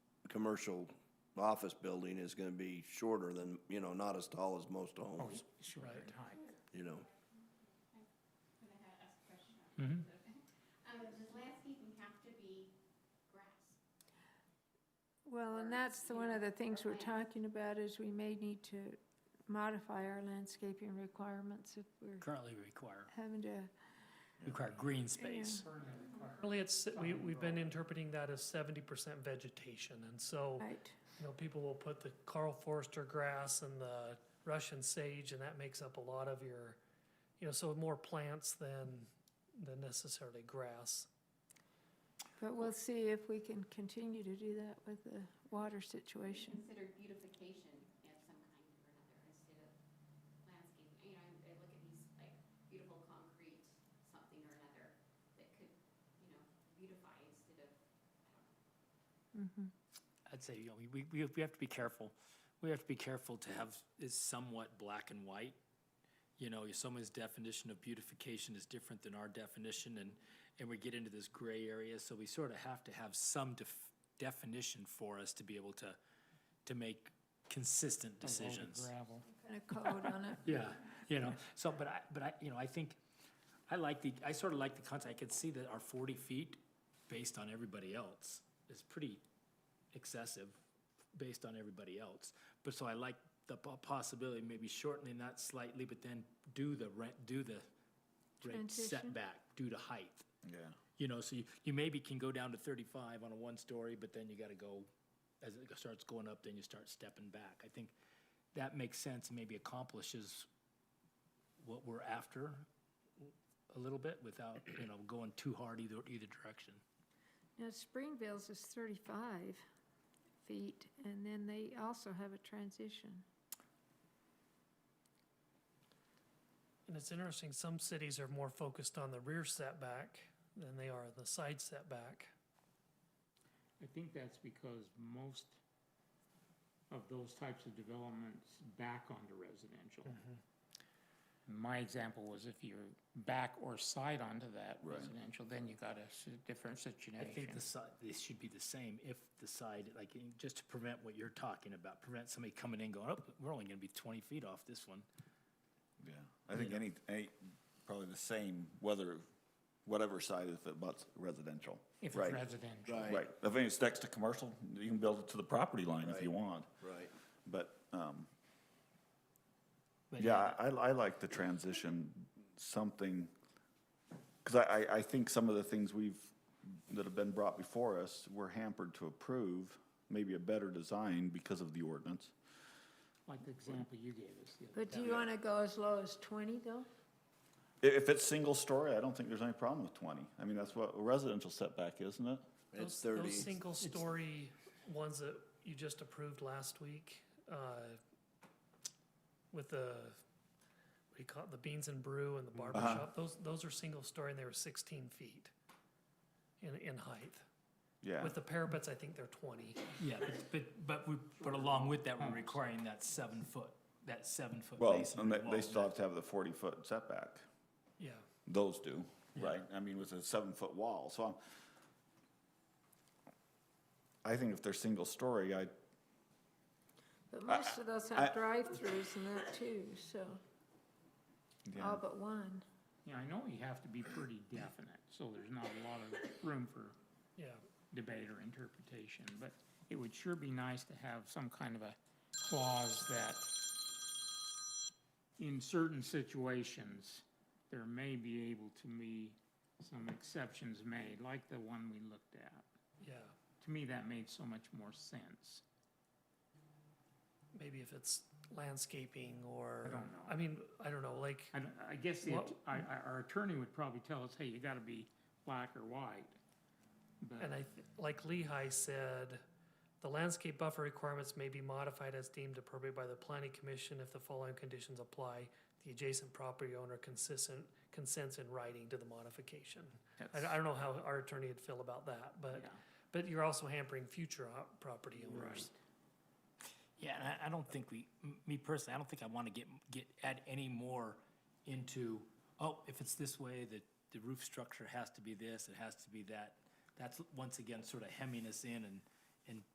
commercial office building is gonna be shorter than, you know, not as tall as most homes, Sure, Right. in height. you know? When I had asked a question. Um, does landscaping have to be grass? Well, and that's the, one of the things we're talking about is we may need to modify our landscaping requirements if we're Currently require, having to, require green space. Really, it's, we, we've been interpreting that as seventy percent vegetation, and so, right, you know, people will put the Carl Forster grass and the Russian sage, and that makes up a lot of your, you know, so more plants than, than necessarily grass. but we'll see if we can continue to do that with the water situation. Considered beautification of some kind or another instead of landscaping. You know, I I look at these like beautiful concrete, something or another that could, you know, beautify instead of, Mhm. I'd say, you know, we, we, we have to be careful. We have to be careful to have, is somewhat black and white. You know, if someone's definition of beautification is different than our definition and, and we get into this gray area. So we sort of have to have some def- definition for us to be able to, to make consistent decisions. Gravel. Kind of code on it. Yeah, you know, so, but I, but I, you know, I think, I like the, I sort of like the concept, I could see that our forty feet, based on everybody else, is pretty excessive, based on everybody else. But so I like the po- possibility, of maybe shortening that slightly, but then do the rent, do the rate Transition. setback due to height. Yeah. You know, so you, you maybe can go down to thirty-five on a one-story, but then you gotta go, as it starts going up, then you start stepping back. I think that makes sense, and maybe accomplishes what we're after a little bit without, you know, going too hard either, either direction. Now, Springville's is thirty-five feet, and then they also have a transition. And it's interesting, some cities are more focused on the rear setback than they are the side setback. I think that's because most of those types of developments back onto residential. Mm-hmm. My example was if you're back or side onto that Right. residential, then you got a s- different I think situation. the side, this should be the same if the side, like, in- just to prevent what you're talking about, prevent somebody coming in going, oh, we're only gonna be twenty feet off this one. Yeah, I think any, any, probably the same, whether, whatever side if it butts residential. If it's Right. residential. Right, if it's next to commercial, you can build it to the property line if you want, Right. but, um, But yeah, I, I like the transition, something, cause I, I, I think some of the things we've, that have been brought before us, we're hampered to approve, maybe a better design because of the ordinance. Like the example you gave us. the other- But do you want to go as low as twenty, though? I- If it's single story, I don't think there's any problem with twenty, I mean, that's what a residential setback, isn't it? It's Those- thirty, Those single-story ones that you just approved last week, uh, with the, what do you call it, the beans and brew Mm-hmm. and the barber Uh-huh. shop, those, those are single-story and they were sixteen feet in, in height. Yeah. With the parapets, I think they're twenty. Yeah, but- but, but we, but along with that, we're requiring that seven foot, that seven foot Well, masonry and they, wall. they still have to have the forty-foot setback. Yeah, Those do, right? I mean, with a seven-foot wall, so I'm, I think if they're single-story, I, But most of those I- have drive-throughs and that too, so, yeah, all but one. Yeah, I know you have to be pretty definite, so there's not a lot of room for yeah. debate or interpretation, but it would sure be nice to have some kind of a clause that in certain situations, there may be able to be some exceptions made, like the one we looked at. Yeah, To me, that made so much more sense. maybe if it's landscaping or. I don't know. I mean, I don't know, like, And I guess the, Well- I, I, our attorney would probably tell us, hey, you gotta be black or white. and I, But th- like Lehigh said, the landscape buffer requirements may be modified as deemed appropriate by the planning commission if the following conditions apply. The adjacent property owner consistent, consents in writing to the modification. I, I don't know how our attorney would feel about that, but, Yeah. but you're also hampering future op- property Right. owners. Yeah, and I, I don't think we, m- me personally, I don't think I wanna get, get, add any more into, oh, if it's this way, the, the roof structure has to be this, it has to be that. That's once again sort of hemming us in and, and